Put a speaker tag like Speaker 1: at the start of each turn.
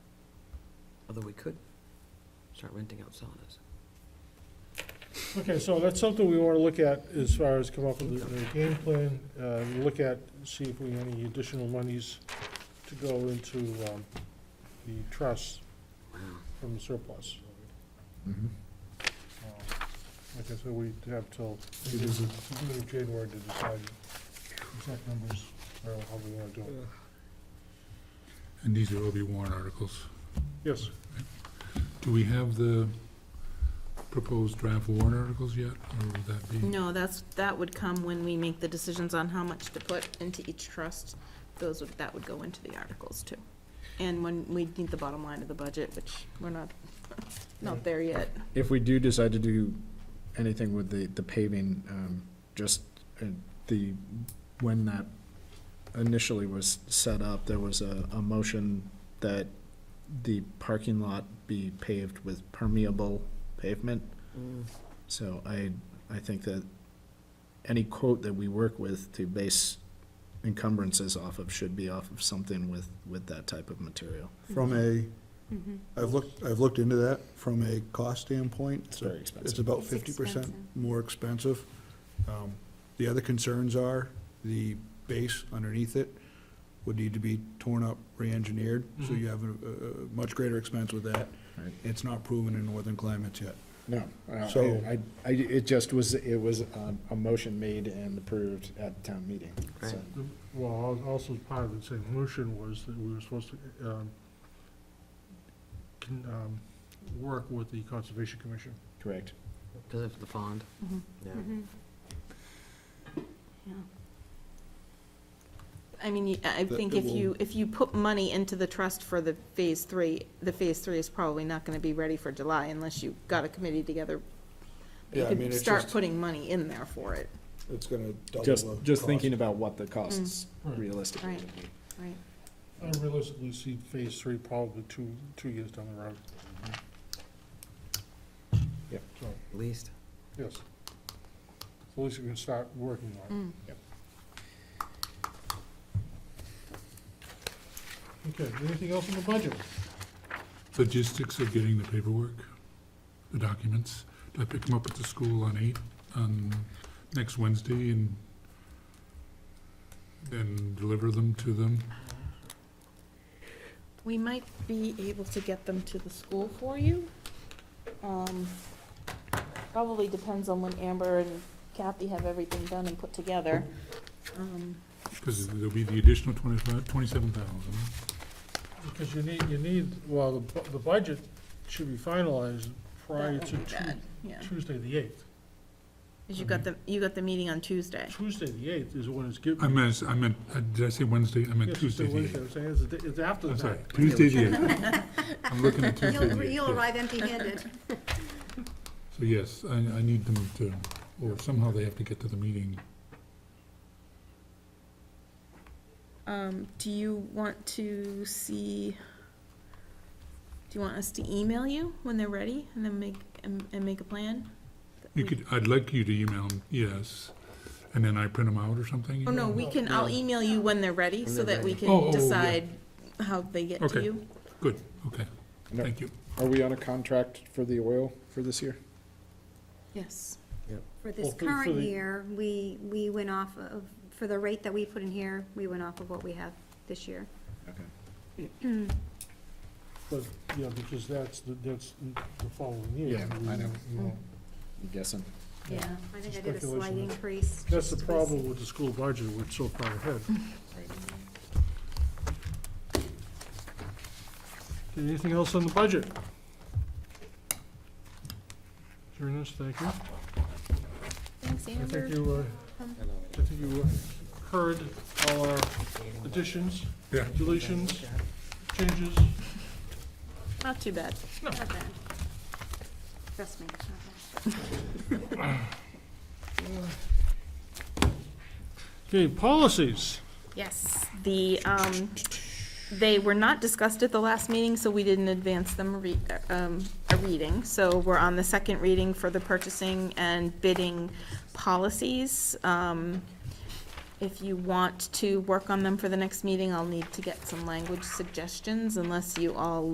Speaker 1: although we could start renting out saunas.
Speaker 2: Okay, so that's something we want to look at as far as come up with a a game plan, uh, look at, see if we, any additional monies to go into um, the trust
Speaker 1: Wow.
Speaker 2: from the surplus.
Speaker 3: Mhm.
Speaker 4: Mm-hmm.
Speaker 2: Uh, Like I said, we have till
Speaker 3: It is a-
Speaker 2: beginning of January to decide exact numbers, or how we want to do it.
Speaker 3: And these are all be warrant articles.
Speaker 2: Yes,
Speaker 3: Do we have the proposed draft warrant articles yet, or would that be?
Speaker 5: No, that's, that would come when we make the decisions on how much to put into each trust. Those would, that would go into the articles too. And when we need the bottom line of the budget, which we're not, not there yet.
Speaker 4: If we do decide to do anything with the, the paving, um, just uh, the, when that initially was set up, there was a, a motion that the parking lot be paved with permeable pavement.
Speaker 1: Mm.
Speaker 4: So I, I think that any quote that we work with to base encumbrances off of should be off of something with, with that type of material.
Speaker 3: From a,
Speaker 5: Mm-hmm.
Speaker 3: I've looked, I've looked into that, from a cost standpoint,
Speaker 4: It's
Speaker 3: it's
Speaker 4: very
Speaker 3: It's
Speaker 4: expensive.
Speaker 3: about
Speaker 5: It's
Speaker 3: fifty percent
Speaker 5: expensive.
Speaker 3: more expensive. Um, The other concerns are the base underneath it would need to be torn up, re-engineered, so you have a, a- a much greater expense with that.
Speaker 4: Right.
Speaker 3: It's not proven in northern climates yet.
Speaker 4: No, uh,
Speaker 3: So-
Speaker 4: I, I, it just was, it was um, a motion made and approved at the town meeting. so.
Speaker 1: Right.
Speaker 2: The- well, al- also part of the same motion was that we were supposed to, um, con- um, work with the Conservation Commission.
Speaker 4: Correct.
Speaker 1: Because of the pond, yeah.
Speaker 5: Mm-hmm. Yeah. I mean, you- I I
Speaker 3: That
Speaker 5: think
Speaker 3: it
Speaker 5: if you,
Speaker 3: will-
Speaker 5: if you put money into the trust for the phase three, the phase three is probably not gonna be ready for July unless you got a committee together. But
Speaker 3: Yeah, I
Speaker 5: You
Speaker 3: mean,
Speaker 5: could
Speaker 3: it's
Speaker 5: start
Speaker 3: just-
Speaker 5: putting money in there for it,
Speaker 3: It's gonna double
Speaker 4: Just,
Speaker 3: the
Speaker 4: just
Speaker 3: cost.
Speaker 4: thinking about what the costs
Speaker 2: Mm. Right.
Speaker 4: realistically
Speaker 5: Right.
Speaker 4: would be.
Speaker 5: right?
Speaker 2: I realistically see phase three probably two, two years down the road.
Speaker 4: Yep.
Speaker 2: So,
Speaker 1: At least,
Speaker 2: yes. So At least we can start working on
Speaker 5: Mm.
Speaker 2: it. Okay, anything else on the budget?
Speaker 3: Logistics of getting the paperwork, the documents. Do I pick them up at the school on eight, on next Wednesday and, and deliver them to them?
Speaker 5: We might be able to get them to the school for you. Um, Probably depends on when Amber and Kathy have everything done and put together. Um,
Speaker 3: Because there'll be the additional twenty-five, twenty-seven thousand.
Speaker 2: Because you need, you need, well, the, bu- the budget should be finalized
Speaker 5: that
Speaker 2: prior
Speaker 5: won't
Speaker 2: to
Speaker 5: be bad,
Speaker 2: Tu-
Speaker 5: Yeah,
Speaker 2: Tuesday the eighth.
Speaker 5: 'Cause you got the, you got the meeting on Tuesday.
Speaker 2: Tuesday the eighth is when it's given.
Speaker 3: I meant, I meant, uh, did I say Wednesday? I
Speaker 2: Yes,
Speaker 3: meant
Speaker 2: it's
Speaker 3: Tuesday the
Speaker 2: Wednesday,
Speaker 3: eighth.
Speaker 2: I'm saying It's, the day- it's after
Speaker 3: I'm sorry,
Speaker 2: that.
Speaker 3: Tuesday the eighth. I'm looking at Tuesday the
Speaker 6: You'll,
Speaker 3: eighth.
Speaker 6: you'll
Speaker 3: yes.
Speaker 6: arrive empty-handed.
Speaker 3: So yes, I, I need them to, or somehow they have to get to the meeting.
Speaker 5: Um, do you want to see, do you want us to email you when they're ready and then make, and, and make a plan?
Speaker 3: You could, I'd like you to email them, yes, and then I print them out or something?
Speaker 5: Oh, no, we can, I'll email you when they're ready
Speaker 1: When
Speaker 5: so
Speaker 1: they're
Speaker 5: that we
Speaker 1: ready.
Speaker 3: Oh, oh, yeah.
Speaker 5: can decide how they get to
Speaker 3: Okay.
Speaker 5: you.
Speaker 3: Good, okay,
Speaker 4: And
Speaker 3: thank you.
Speaker 4: Are are we on a contract for the oil for this year?
Speaker 5: Yes.
Speaker 6: For
Speaker 2: Well,
Speaker 6: this
Speaker 2: for- for
Speaker 6: current
Speaker 2: the-
Speaker 6: year, we, we went off of, for the rate that we put in here, we went off of what we have this year.
Speaker 4: Okay.
Speaker 2: But, yeah, because that's, the- that's the following year.
Speaker 4: Yeah,
Speaker 2: We-
Speaker 4: I know.
Speaker 2: we won't-
Speaker 4: I'm guessing.
Speaker 2: Yeah.
Speaker 6: I think I did a slight
Speaker 2: Speculation.
Speaker 6: increase.
Speaker 2: That's the
Speaker 6: just
Speaker 2: problem with the school budget, we're so far ahead. Okay, Anything else on the budget? Journalists, thank you.
Speaker 5: Thanks,
Speaker 2: I
Speaker 5: Amber.
Speaker 2: think you, uh, I think you uh, heard all our additions,
Speaker 3: Yeah.
Speaker 2: deletions, changes.
Speaker 5: Not too bad.
Speaker 6: Not bad. Trust me, it's not bad.
Speaker 2: Okay, policies.
Speaker 5: Yes, the, um, they were not discussed at the last meeting, so we didn't advance them a re- um, a reading. So we're on the second reading for the purchasing and bidding policies. Um, If you want to work on them for the next meeting, I'll need to get some language suggestions unless you all